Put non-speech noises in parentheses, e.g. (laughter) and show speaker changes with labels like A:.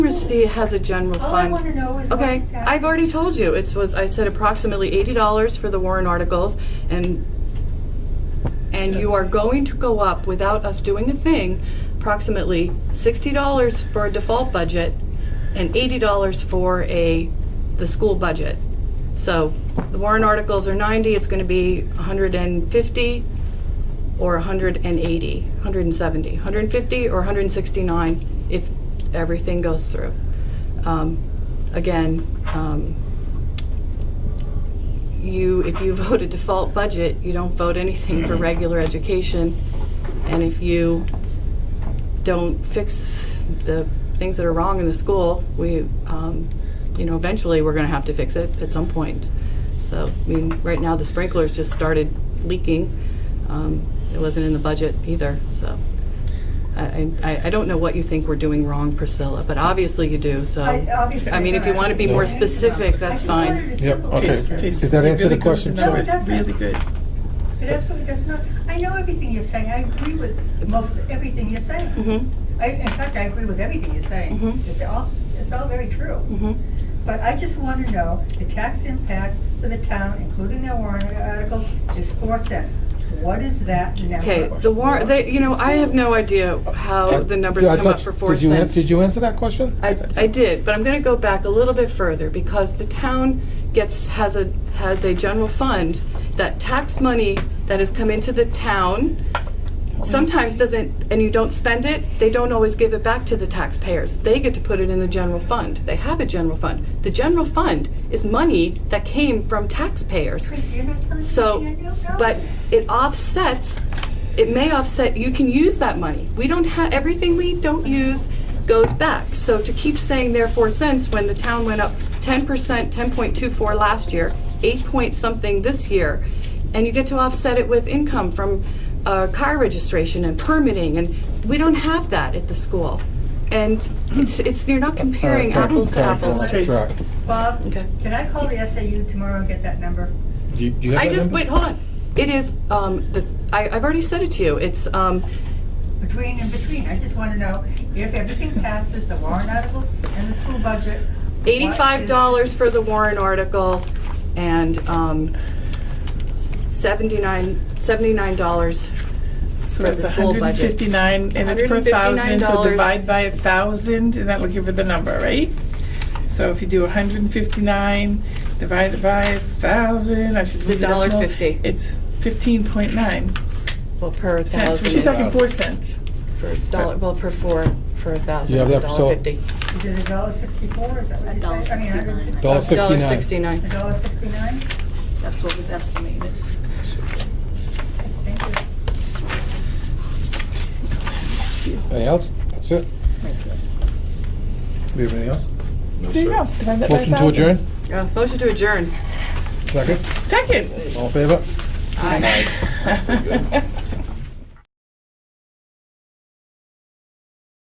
A: Literacy has a general
B: All Oh, I
A: fund.
B: want to know is uh, what
A: Okay,
B: tax-
A: I've already told you, it was, I said approximately eighty dollars for the Warren articles, and, and you are going to go up without us doing a thing, approximately sixty dollars for a default budget, and eighty dollars for a, the school budget. So, the Warren articles are ninety, it's gonna be hundred and fifty, or hundred and eighty, hundred and seventy, hundred and fifty, or hundred and sixty-nine, if everything goes through. Um, Again, um, you, if you vote a default budget, you don't vote anything
B: (clears throat)
A: for regular education. And if you don't fix the things that are wrong in the school, we, um, you know, eventually, we're gonna have to fix it at some point. So, I mean, right now, the sprinklers just started leaking. Um, It wasn't in the budget either, so. I, I, I don't know what you think we're doing wrong, Priscilla, but obviously you do, so.
B: I- obviously
A: I mean, if you wanna be more
B: I-
A: specific,
B: I
A: that's
B: just wanted
A: fine.
B: to
C: Yep,
B: simplify
C: okay.
B: it.
C: Did that answer the question?
B: No, it
D: It's
B: doesn't.
D: really good.
B: It absolutely does not. I know everything you're saying. I agree with most everything you're saying.
A: Mhm,
B: I, in fact, I agree with everything you're saying.
A: Mhm.
B: It's all, s- it's all very true.
A: mhm.
B: But I just want to know the tax impact for the town, including their warrant articles, is four cents. What is that number?
A: Okay, the war, they, you know, I have no idea how Oh, the numbers
C: Uh, I
A: come up
C: thought-
A: for four
C: did you an-
A: cents.
C: Did you answer that question?
A: I, I did, but I'm gonna go back a little bit further, because the town gets, has a, has a general fund that tax money that has come into the town sometimes doesn't, and you don't spend it, they don't always give it back to the taxpayers. They get to put it in the general fund. They have a general fund. The general fund is money that came from taxpayers.
B: Tracy, you're not telling me
A: So,
B: anything I don't know?
A: but it offsets, it may offset, you can use that money. We don't have, everything we don't use goes back. So to keep saying their four cents when the town went up ten percent, ten point two four last year, eight point something this year, and you get to offset it with income from uh, car registration and permitting, and we don't have that at the school. And it's, it's, you're not comparing
C: All right,
A: apples to
C: all right,
A: apples.
C: all right, all right.
B: Bob,
A: Okay.
B: can I call the SAU tomorrow and get that number?
C: Do you- do you have
A: I
C: that
A: just,
C: number?
A: wait, hold on. It is, um, the, I, I've already said it to you. It's, um,
B: Between and between, I just want to know if everything passes, the warrant articles and the school budget. what is-
A: eighty-five dollars for the Warren article and, um, seventy-nine, seventy-nine dollars.
D: So
A: For
D: it's
A: the school budget.
D: 159, and it's per thousand, so
A: $159.
D: divide by a thousand, and that'll give you the number, right? So if you do 159 divided by a thousand, I should.
A: It's
D: move
A: a dollar
D: decimal.
A: fifty.
D: It's 15.9
A: Well, per
D: cents. She's
A: thousand,
D: talking four cents.
A: for dollar, well, per four, for a thousand,
C: You have
A: it's a
C: that,
A: dollar
C: so-
A: fifty.
B: Is it a dollar sixty-four, is that what
E: A
B: you say?
E: dollar
B: I mean, a hundred and
E: sixty-nine.
B: sixty-
C: Dollar
A: It's dollar
C: sixty-nine.
B: A
A: sixty-nine.
B: dollar sixty-nine?
E: That's what was estimated.
B: Thank you.
C: Anything else? That's it? Do you have anything else?
D: There you go. divide that by
C: Motion to
D: 1,000.
C: adjourn?
A: Uh, Motion to adjourn.
C: Second?
D: Second.
C: All in favor?
A: Aye.